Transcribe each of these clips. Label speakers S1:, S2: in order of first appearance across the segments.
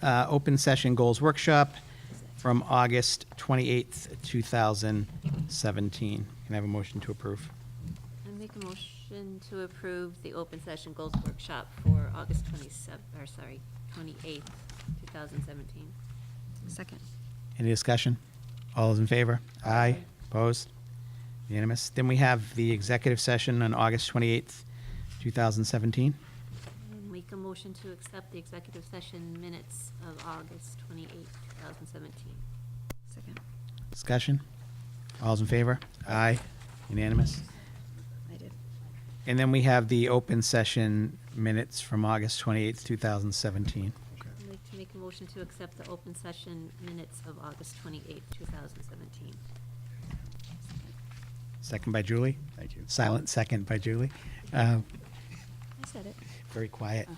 S1: uh, Open Session Goals Workshop from August 28th, 2017. Can I have a motion to approve?
S2: I make a motion to approve the open session goals workshop for August 27, or sorry, 28th, 2017.
S3: Second.
S1: Any discussion? All those in favor? Aye. Opposed? Unanimous. Then we have the executive session on August 28th, 2017.
S2: And Make a motion to accept the executive session minutes of August 28, 2017.
S3: Second.
S1: Discussion? All those in favor? Aye. Unanimous.
S3: I did.
S1: And then we have the open session minutes from August 28th, 2017.
S4: Okay.
S2: I'd like to make a motion to accept the open session minutes of August 28, 2017.
S1: Second by Julie? Thank you. Silent second by Julie. Uh,
S3: I said it.
S1: Very quiet.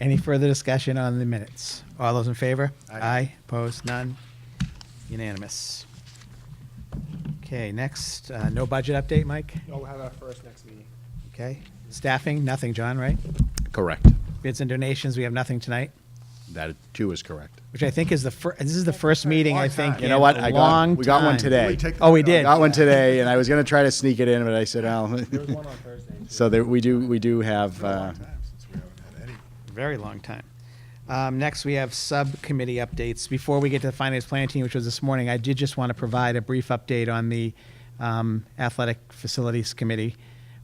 S1: Any further discussion on the minutes? All those in favor?
S4: Aye.
S1: Opposed? None? Unanimous. Okay, next, uh, no budget update, Mike?
S4: We'll have our first next meeting.
S1: Okay. Staffing, nothing, John, right?
S5: Correct.
S1: Bids and donations, we have nothing tonight,
S5: That too is correct.
S1: which I think is the fir, this is the first meeting, I
S4: Long
S1: think,
S4: time.
S5: You
S1: in
S5: know what? I
S1: a long
S5: got, we got one
S1: time.
S5: today.
S4: Can we take
S1: Oh, we
S4: the-
S1: did.
S5: Got one today, and I was gonna try to sneak it in, but I said, oh.
S4: There was one on Thursday. too.
S5: So there, we do, we do
S4: It's
S5: have,
S4: been a long
S5: uh,
S4: time since we haven't had any.
S1: Very long time. Um, next, we have subcommittee updates. Before we get to the finance planning team, which was this morning, I did just want to provide a brief update on the um, athletic facilities committee.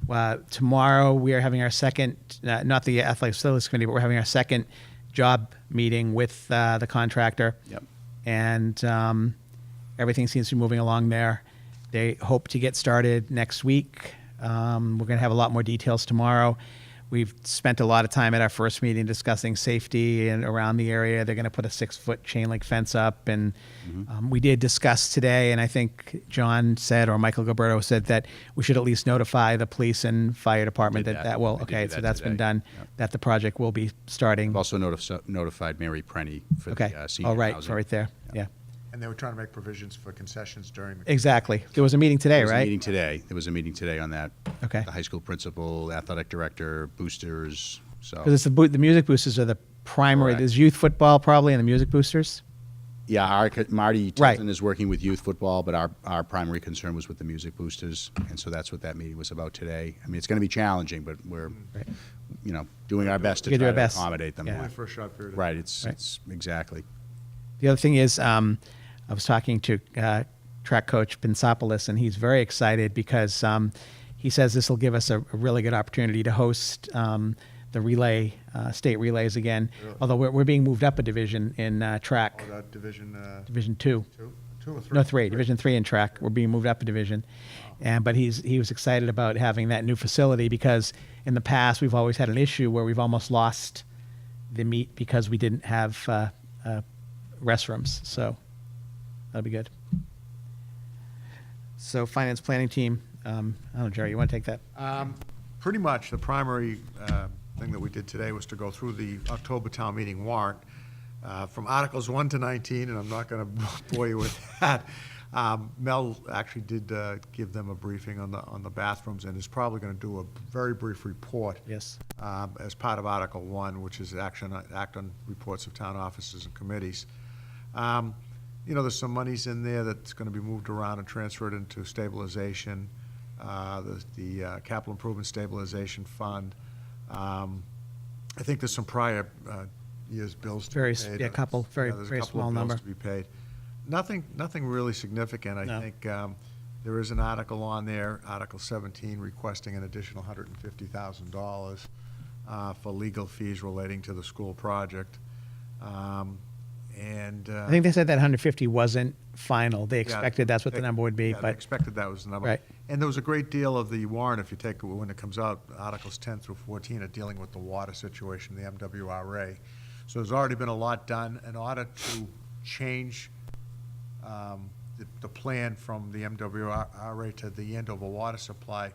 S1: Uh, tomorrow, we are having our second, uh, not the athletic facilities committee, but we're having our second job meeting with uh, the contractor.
S5: Yep.
S1: And um, everything seems to be moving along there. They hope to get started next week. Um, we're going to have a lot more details tomorrow. We've spent a lot of time at our first meeting discussing safety and around the area. They're going to put a six foot chain link fence up. And
S5: Mm-hmm.
S1: um, we did discuss today, and I think John said, or Michael Gilberto said, that we should at least notify the police and fire department
S5: Did
S1: that
S5: that.
S1: that will,
S5: I did
S1: okay,
S5: do
S1: so
S5: that
S1: that's been
S5: today.
S1: done,
S5: Yep.
S1: that the project will be starting.
S5: I've also notif- notified Mary Prenny for
S1: Okay.
S5: the uh, senior
S1: All right,
S5: housing.
S1: so right there, yeah.
S4: And they were trying to make provisions for concessions during the.
S1: Exactly. There was a meeting today,
S5: There was a meeting
S1: right?
S5: today. There was a meeting today on that.
S1: Okay.
S5: The high school principal, athletic director, boosters, so.
S1: Because it's the, boo- the music boosters are the primary,
S5: Oh. Correct.
S1: there's youth football probably and the music boosters?
S5: Yeah, our, co- Marty
S1: Right.
S5: Tilton is working with youth football, but our, our primary concern was with the music boosters, and so that's what that meeting was about today. I mean, it's going to be challenging, but we're,
S1: Right.
S5: you know, doing our best to
S1: We're
S5: try
S1: gonna do
S5: to
S1: our best.
S5: accommodate them.
S1: Yeah.
S4: Only for a short period. of
S5: Right, it's,
S1: Right.
S5: it's, exactly.
S1: The other thing is, um, I was talking to uh, track coach Pensopoulos, and he's very excited because um, he says this will give us a, a really good opportunity to host um, the relay, uh, state relays again. Although we're, we're being moved up a division in uh, track,
S4: time. Oh, that division, uh,
S1: Division Two.
S4: two, two or three?
S1: No, three, Division three in track. We're being moved up a division, and but he's he was excited about having that new facility because in the past we've always had an issue where we've almost lost the meet because we didn't have uh, uh, restrooms. So that'll be good. So finance planning team. Um, I don't know, Jerry. You want to take that?
S4: Pretty much, the primary uh, thing that we did today was to go through the October town meeting warrant uh, from Articles 1 to 19, and I'm not going to bore you with that. Um, Mel actually did uh, give them a briefing on the, on the bathrooms, and is probably going to do a very brief report
S1: yes.
S4: um, as part of Article One, which is action, act on reports of town offices and committees. Um, You know, there's some monies in there that's gonna be moved around and transferred into stabilization, uh, the, the uh, capital improvement stabilization fund. Um, I think there's some prior uh, years' bills to be
S1: Very s-
S4: paid.
S1: yeah, couple, very-
S4: Yeah, there's a
S1: very
S4: couple of
S1: small
S4: bills
S1: number.
S4: to be paid. Nothing, nothing really significant. I
S1: No.
S4: think um, there is an article on there, Article 17, requesting an additional $150,000 uh, for legal fees relating to the school project. Um, And. uh,
S1: I think they said that 150 wasn't final. They expected that's what the number would be, but
S4: Expected that was the number.
S1: Right.
S4: And there was a great deal of the warrant, if you take, it when it comes out, Articles 10 through 14 are dealing with the water situation, the MWRA. So there's already been a lot done in order to change um, the, the plan from the MWRA to the Andover water supply,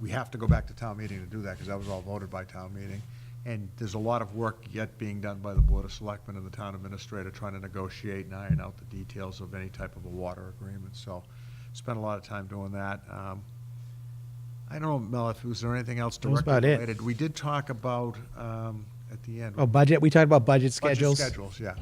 S4: we have to go back to town meeting to do that, because that was all voted by town meeting. And there's a lot of work yet being done by the Board of Selectmen and the town administrator trying to negotiate and iron out the details of any type of a water agreement, so spent a lot of time doing that. Um, I don't know, Mel, if, was there anything else
S1: That was
S4: directly
S1: about it.
S4: related? We did talk about, um, at the end.
S1: Oh, budget, we talked about budget
S4: Budget
S1: schedules.
S4: Schedules, yeah.